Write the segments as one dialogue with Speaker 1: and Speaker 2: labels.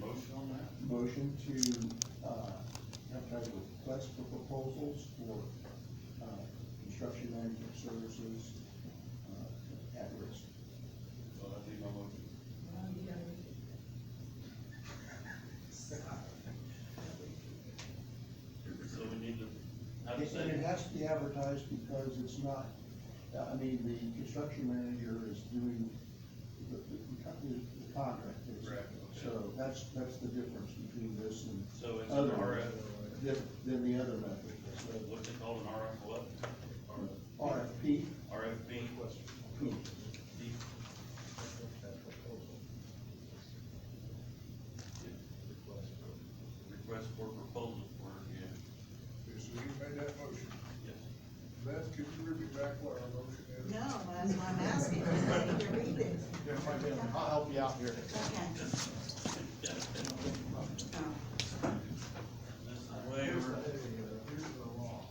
Speaker 1: motion on that?
Speaker 2: Motion to, uh, advertise request for proposals for, uh, construction management services, uh, at risk.
Speaker 1: So that'd be my motion.
Speaker 3: Well, you gotta read it.
Speaker 1: So we need to have a
Speaker 2: It- And it
Speaker 1: second.
Speaker 2: has to be advertised because it's not, uh, I mean, the construction manager is doing the, the con- the contract. is-
Speaker 1: Correct, okay.
Speaker 2: So that's, that's the difference between this and
Speaker 1: So it's an
Speaker 2: other,
Speaker 1: RF,
Speaker 2: than, than the other method. So,
Speaker 1: what's it called, an RF what?
Speaker 2: RFP,
Speaker 1: RFP? Request for proposal for, yeah,
Speaker 4: Okay, so you made that motion.
Speaker 1: yes.
Speaker 4: Beth, could you repeat back what our motion is?
Speaker 3: No, that's why I'm asking, I need to read it.
Speaker 5: I'll help you out here.
Speaker 3: Okay. Oh,
Speaker 1: This is waiver,
Speaker 4: Here's the law.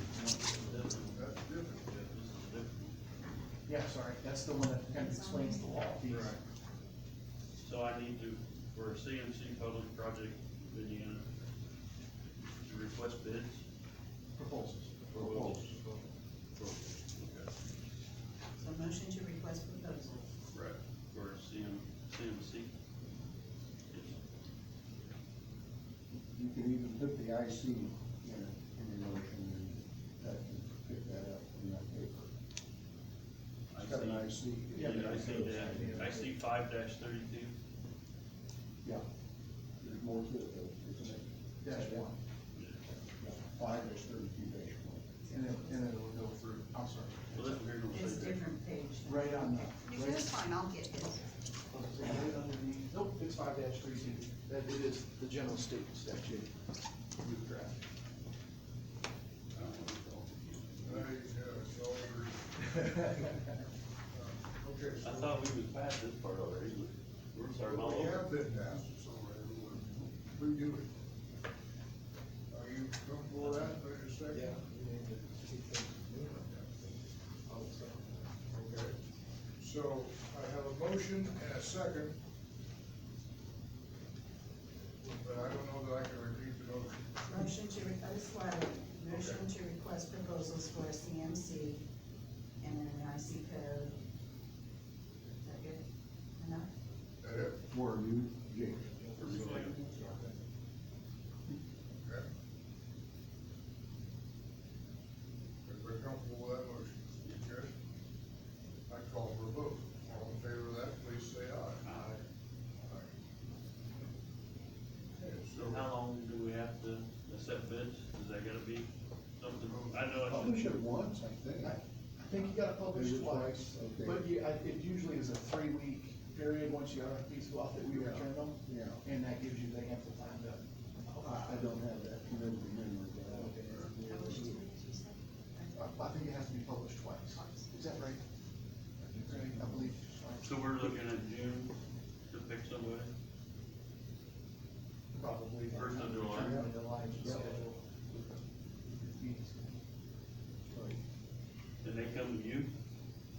Speaker 4: That's different.
Speaker 1: this is different.
Speaker 5: Yeah, sorry, that's the one that kind of explains the law piece.
Speaker 1: So I need to, for a CMC public project bid unit, to request bids?
Speaker 5: Proposals.
Speaker 1: Proposals. Okay,
Speaker 3: So motion to request proposals.
Speaker 1: right, for CM, CMC. Yes.
Speaker 2: you can even put the IC in, in the motion and that can pick that up in that paper. It's got an IC.
Speaker 1: Yeah, I see that, I see five dash thirty-two.
Speaker 2: Yeah, there's more to it though, isn't it?
Speaker 5: Dash one.
Speaker 2: Yeah, Five is thirty-two dash one.
Speaker 5: And then, and then it'll go through, I'm sorry.
Speaker 1: Well, that's what we're gonna
Speaker 3: It's
Speaker 1: say.
Speaker 3: different page.
Speaker 5: Right on
Speaker 3: You
Speaker 5: the.
Speaker 3: can,
Speaker 5: right-
Speaker 3: it's fine, I'll get his.
Speaker 5: right underneath- Nope, it's five dash three two. That, it is the general statement statute. Move draft.
Speaker 1: I don't wanna call it.
Speaker 4: There you go, it's all over. Uh, Okay.
Speaker 1: I
Speaker 4: so-
Speaker 1: thought we was past this part already, we're sorry, my
Speaker 4: We
Speaker 1: lord.
Speaker 4: have been asked, it's all right, we- we do it. Are you comfortable with that, wait a second? Okay, so I have a motion and a second. But I don't know that I can repeat the motion.
Speaker 3: Motion to, re- oh, this letter, motion to request proposals for a CMC and an IC code. Is that good enough?
Speaker 4: That it?
Speaker 2: Were you, Jake?
Speaker 1: For reflecting.
Speaker 4: Okay. Everybody comfortable with that motion? Okay. I call for a vote. All in favor of that, please say aye. Aye. Okay, so,
Speaker 1: So how long do we have to accept bids? Is that gonna be something, I know
Speaker 2: Publish
Speaker 1: it's,
Speaker 2: it once, I think.
Speaker 5: I think you gotta publish
Speaker 2: Maybe
Speaker 5: twice,
Speaker 2: twice, okay.
Speaker 5: but you, I, it usually is a three-week period once your RFPs go out that we
Speaker 2: Yeah.
Speaker 5: return them.
Speaker 2: Yeah.
Speaker 5: And that gives you the ample time to.
Speaker 2: I, I don't have that committed memory, but I
Speaker 5: Okay.
Speaker 3: Published two weeks, you said?
Speaker 5: I, I think it has to be published twice. Is that right? I believe. right.
Speaker 1: so we're looking at June to pick somebody?
Speaker 5: Probably.
Speaker 1: First of July.
Speaker 5: Yeah, July is the
Speaker 2: Yeah.
Speaker 5: schedule. Meetings.
Speaker 1: Did they come to you?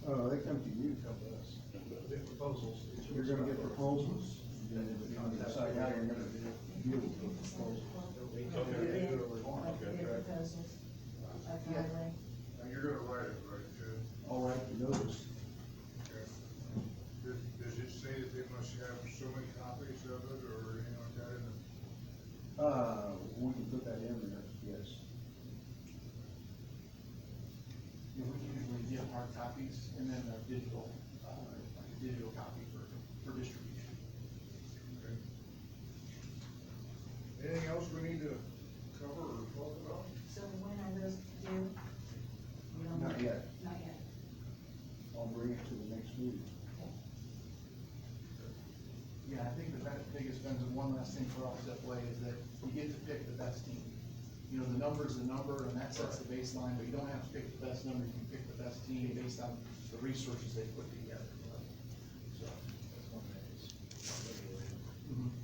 Speaker 2: Uh, they come to you.
Speaker 5: The proposals.
Speaker 2: You're gonna get proposals, and then you're gonna decide how you're gonna deal with the proposals.
Speaker 1: Okay.
Speaker 3: Like their proposals of
Speaker 5: Yeah.
Speaker 3: highway.
Speaker 4: now you're gonna write it, right, Jed?
Speaker 2: All right, the notice.
Speaker 4: Okay. Does, does it say that they must have so many copies of it or anything like that in the?
Speaker 2: Uh, we can put that in there, yes.
Speaker 5: Yeah, we usually get hard copies and then a digital, uh, like a digital copy for, for distribution.
Speaker 4: okay? Anything else we need to cover or talk about?
Speaker 3: So when are those due? We don't know.
Speaker 2: Not yet.
Speaker 3: Not yet.
Speaker 2: I'll bring it to the next meeting.
Speaker 5: Yeah, I think the best- biggest benefit, one last thing for us that way is that you get to pick the best team. You know, the number's the number and that sets the baseline, but you don't have to pick the best number, you can pick the best team based on the resources they put together. So, that's one thing.